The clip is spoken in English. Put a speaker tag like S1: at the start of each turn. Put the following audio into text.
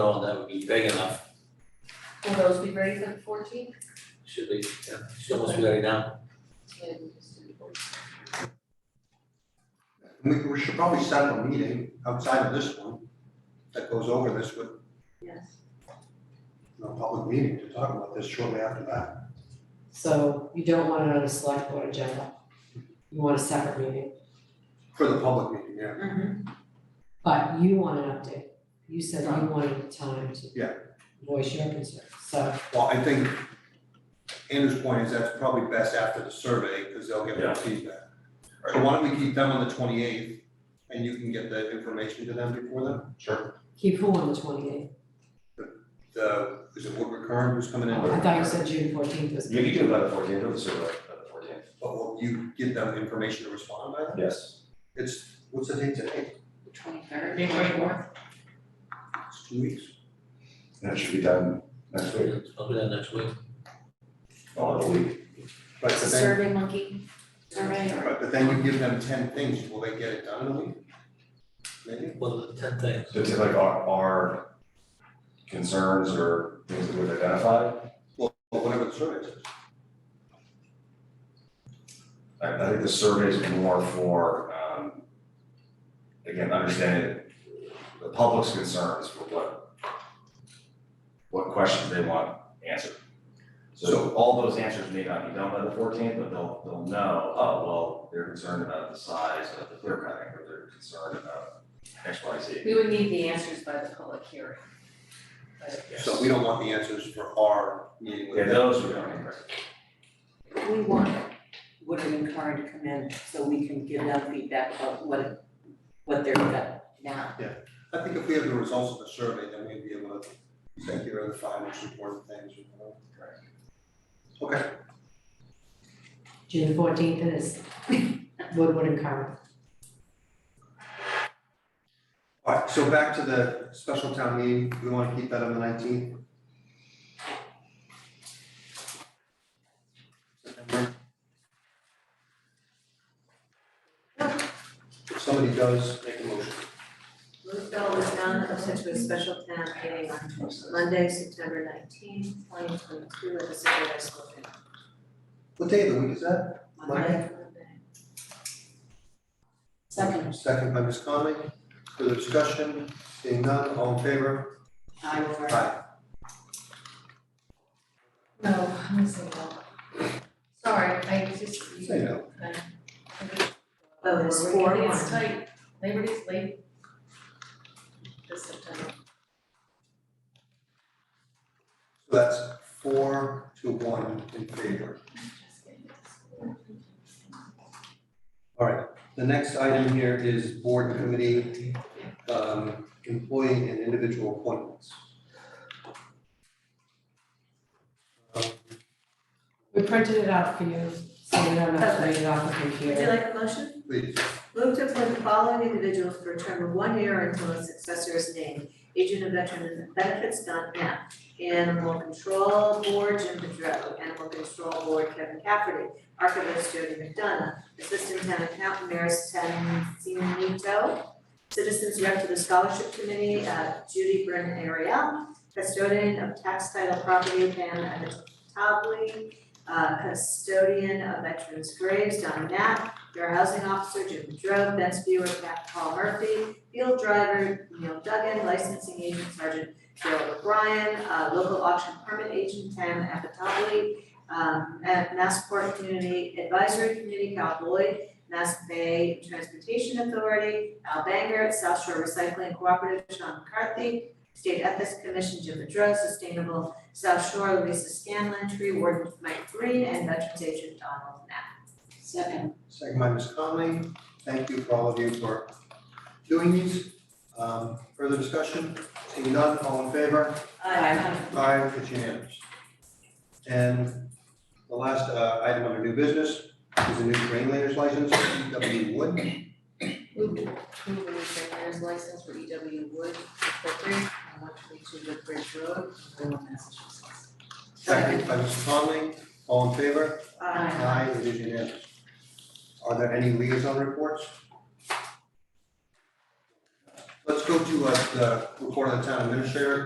S1: Oh, that would be big enough,
S2: Will those be ready for the fourteenth?
S1: should be, yeah, should almost be ready now.
S3: We, we should probably set up a meeting outside of this one that goes over this with,
S2: Yes.
S3: you know, public meeting to talk about this shortly after that.
S4: So you don't want it on a select board agenda. You want a separate meeting,
S3: For the public meeting, yeah.
S2: Mm-hmm.
S4: but you want an update. You said you wanted time to
S3: Yeah.
S4: voice your concern, so
S3: Well, I think Andrew's point is that's probably best after the survey, because they'll get
S1: Yeah.
S3: more feedback. So why don't we keep them on the twenty-eighth, and you can get the information to them before then? Sure.
S4: keep who on the twenty eighth?
S3: The, is it Woodward Kern who's coming in?
S4: Oh, I thought you said June fourteenth was.
S5: You can do it by the fourteenth, or the survey by the fourteenth,
S3: But will you give them information to respond by then?
S5: yes.
S3: It's, what's the date today?
S2: Twenty-third.
S3: It's two weeks.
S5: That should be done next week,
S1: I'll do that next week.
S5: or in Oh, a week.
S3: But
S2: It's a
S3: then-
S2: survey monkey, survey or
S3: Right, but then you give them ten things, will they get it done in a week? Maybe?
S1: Well, the ten things,
S5: So it's like our, our concerns or things that we've identified,
S3: Or whatever the survey says.
S5: I, I think the surveys are more for, um, again, understanding the public's concerns for what, what questions they want answered. So all those answers may not be done by the fourteenth, but they'll, they'll know, oh, well, they're concerned about the size of the clear cutting, or they're concerned about X, Y, Z.
S6: We would need the answers by the public hearing.
S3: So we don't want the answers for our meeting with
S5: Yeah,
S3: them.
S5: those are going to
S6: We want Woodard and Curran to come in so we can give them feedback about what, what they're got now.
S3: I think if we have the results of the survey, then we'd be able to say here are the five most important things, you know? Okay,
S4: June fourteenth is Woodward and Carmen.
S3: all right, so back to the special town meeting, we wanna keep that on the nineteenth? If somebody does, make a motion.
S7: Move bill was done pursuant to a special town meeting on Monday, September nineteenth, twenty twenty-two, at the City High School.
S3: What day of the week is that?
S7: Monday.
S6: Second,
S3: Second by Ms. Conley, further discussion, seeing none, all in favor?
S6: I will.
S3: Aye.
S2: No, I'm missing one. Sorry, I just.
S3: Say no.
S7: Oh, there's
S2: We're
S7: four
S2: really- It's
S7: one.
S2: tight, Labor Day's late. This September.
S3: So that's four to one in favor.
S2: Just getting this.
S3: All right, the next item here is board committee, um, employee and individual appointments. Um,
S4: We printed it out for you, so you don't have to read it off the
S7: Would you
S4: computer.
S7: like a motion?
S3: Please,
S7: Move to appoint the following individuals for a term of one year or until a successor is named. Agent and Veteran Benefits, Don Knapp. Animal Control Board, Jim Pedro. Animal Control Board, Kevin Cafferty. Archivist, Jody McDonough. Assistant Town Accountant, Maris Tanzanito. Citizens Rep to the Scholarship Committee, uh, Judy Brennan Ariel. Custodian of Tax Title Property, Pam Tobley. Uh, Custodian of Veterans Graves, Don Knapp. Fair Housing Officer Jim Drove, Best Viewer Pat Paul Murphy, Field Driver Neil Duggan, Licensing Agent Sergeant Gerald O'Brien, uh, Local Auction Permit Agent Tam Apatoli, um, at Massport Community Advisory Committee, Cal Lloyd, Mass Bay Transportation Authority, Al Banger, South Shore Recycling Cooperative, Sean McCarthy, State Ethics Commission, Jim Bedro, Sustainable South Shore, Louisa Scanlon, Tree Warden Mike Green, and Veterans Agent Donald Knapp.
S6: Second,
S3: second by Ms. Conley, thank you for all of you for doing these. Um, further discussion, seeing none, all in favor?
S6: Aye.
S3: Aye, it's unanimous. And the last uh, item under new business is a new grain layers license, E W Wood.
S2: Move to approve the veterinarian's license for EW Wood Incorporated on one twenty-two Woodbridge Road, Salem, Massachusetts.
S3: Second by Mr. Conley, all in favor?
S7: Aye.
S3: Aye, it is unanimous. Are there any liaison reports? Let's go to uh, the report of the town administrator.